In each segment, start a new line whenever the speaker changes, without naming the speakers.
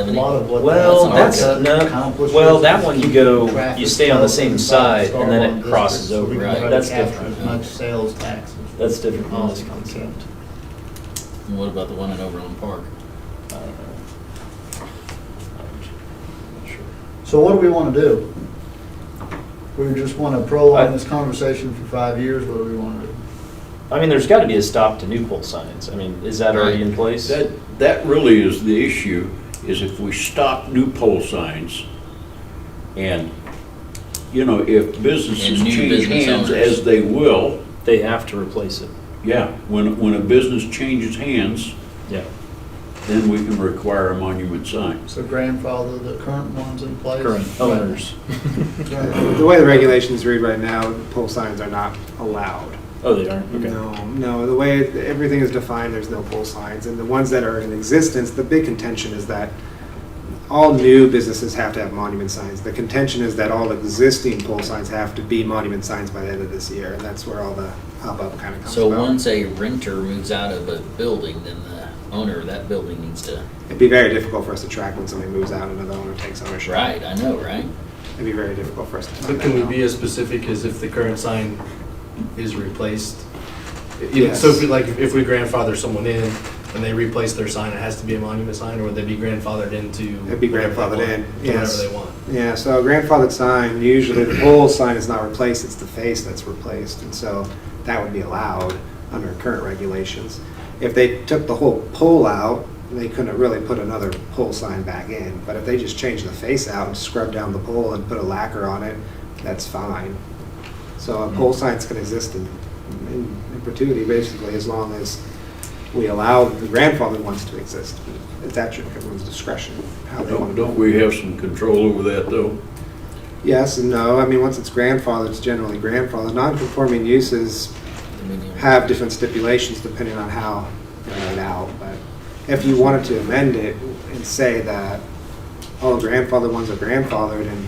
A lot of what.
Well,
that's
that's,
an
no,
accomplishment.
well, that one you go,
Traffic
you stay on the same
comes
side
from
and then it
Star
crosses
Lawn
over,
District, so we
right?
can
That's
capture As
different.
much sales tax. as we
That's different from this
possibly can.
concept.
And What about the one in Overland Park?
I don't know. I'm sure.
So what do we want to do? We just want to prolong
I-
this conversation for five years, what do we want to do?
I mean, there's gotta be a stop to new pole signs. I mean, is that already in place?
That, that really is the issue, is if we stop new pole signs and, you know, if businesses
And new
change
business
hands
owners.
as they will,
They have to replace it.
yeah, when, when a business changes hands,
Yeah.
then we can require a monument sign.
So grandfather, the current ones in place?
Current owners.
The way the regulations read right now, pole signs are not allowed.
Oh, they aren't? Okay.
No, no, the way it- everything is defined, there's no pole signs. And the ones that are in existence, the big contention is that all new businesses have to have monument signs. The contention is that all existing pole signs have to be monument signs by the end of this year. And that's where all the hubbub kind of comes
So
about.
once a renter moves out of a building, then the owner of that building needs to,
It'd be very difficult for us to track when somebody moves out and another owner takes ownership.
right, I know, right?
It'd be very difficult for us to
But
find
can
that
we
out.
be as specific as if the current sign is replaced? Even,
Yes.
so if we, like, if we grandfather someone in and they replace their sign, it has to be a monument sign, or would they be grandfathered into?
It'd be
whatever they
grandfathered
want,
in,
to
yes.
Whatever they want.
Yeah, so a grandfathered sign, usually the pole sign is not replaced, it's the face that's replaced, and so that would be allowed under current regulations. If they took the whole pole out, they couldn't really put another pole sign back in, but if they just changed the face out and scrubbed down the pole and put a lacquer on it, that's fine. So a pole signs can exist in, in in perpetuity, basically, as long as we allow the grandfathered ones to exist. It's at your- everyone's discretion, how they
Don't,
want to.
don't we have some control over that, though?
Yes and no. I mean, once it's grandfathered, it's generally grandfathered. Non-conforming uses
I mean, you-
have different stipulations depending on how they're laid out. But if you wanted to amend it and say that all grandfathered ones are grandfathered, and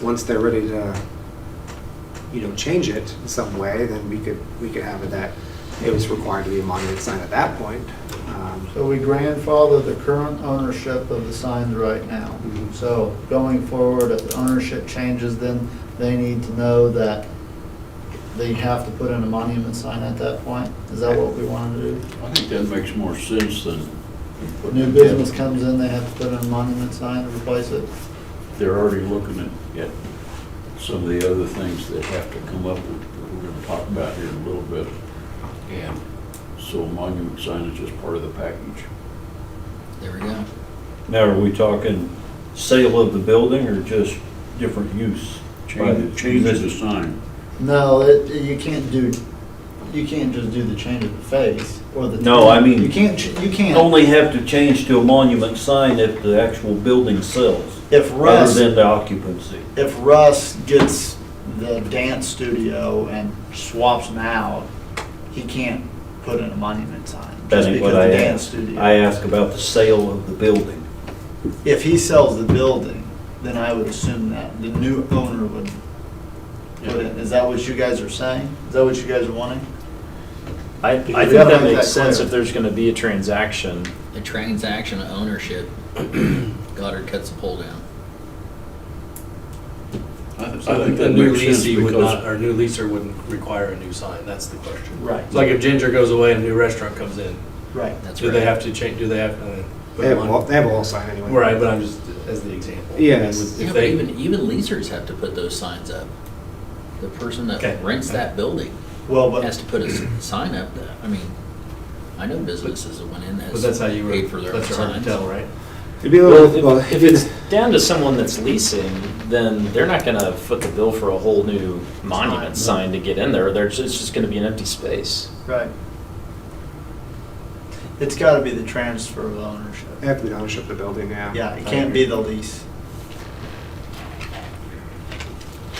once they're ready to, you know, change it in some way, then we could, we could have it that it was required to be a monument sign at that point. Um,
So we grandfather the current ownership of the signs right now.
Mhm.
So going forward, if the ownership changes, then they need to know that they have to put in a monument sign at that point? Is that what we want to do?
I think that makes more sense than.
New business comes in, they have to put in a monument sign to replace it?
They're already looking at, at some of the other things that have to come up with, that we're gonna talk about here in a little bit. And so monument signage is part of the package.
There we go.
Now, are we talking sale of the building or just different use? by the
Change, change the
existing-
sign.
No, it, you can't do, you can't just do the change of the face or the.
No, I mean-
You can't, ch- you can't,
Only have to change to a monument sign if the actual building sells,
if
rather
Russ,
than the occupancy.
if Russ gets the dance studio and swaps them out, he can't put in a monument sign.
That
Just
ain't
because
what
the
I
dance
asked.
studio.
I ask about the sale of the building.
If he sells the building, then I would assume that the new owner would put in. Is that what you guys are saying? Is that what you guys are wanting?
I, I
Because
think
we gotta
that
make
makes
that
sense
clear.
if there's gonna be a transaction.
A transaction of ownership, Goddard cuts the pole down.
I I
So
think
the
that
new
makes sense
leasee would not,
because
or new leaser wouldn't require a new sign, that's the question.
Right.
It's like if Ginger goes away and a new restaurant comes in,
Right.
That's
do they
right.
have to change, do they have to? put
They have,
a
a
mon-
wall- they have a wall sign anyway.
Right, but I'm just, as the example.
Yes.
If
Yeah, but
they-
even, even leasers have to put those signs up. The person
Okay.
that rents that building
Well, but.
has to put a s- sign up. that- I mean, I know businesses that went in that
But that's how you were,
paid for their own
that's hard to
signs.
tell, right?
It'd be a
Well,
little, well,
if- if it's down to someone that's leasing, then they're not gonna foot the bill for a whole new monument sign to get in there. There's, it's just gonna be an empty space.
Right. It's gotta be the transfer of ownership.
they have to be the ownership of the building, Uh, yeah.
Yeah, it can't be the lease.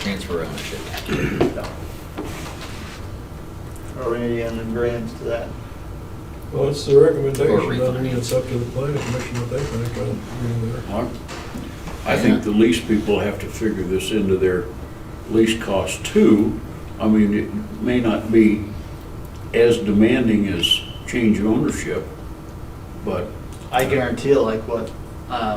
Transfer ownership.
Are we in agreement to that?
Well, it's the recommendation,
Or
I mean, it's up to the planning commission what they think, I don't agree with
I I think the lease people have to figure this into their lease cost too. I mean, it may not be as demanding as change of ownership, but
I guarantee like what, uh,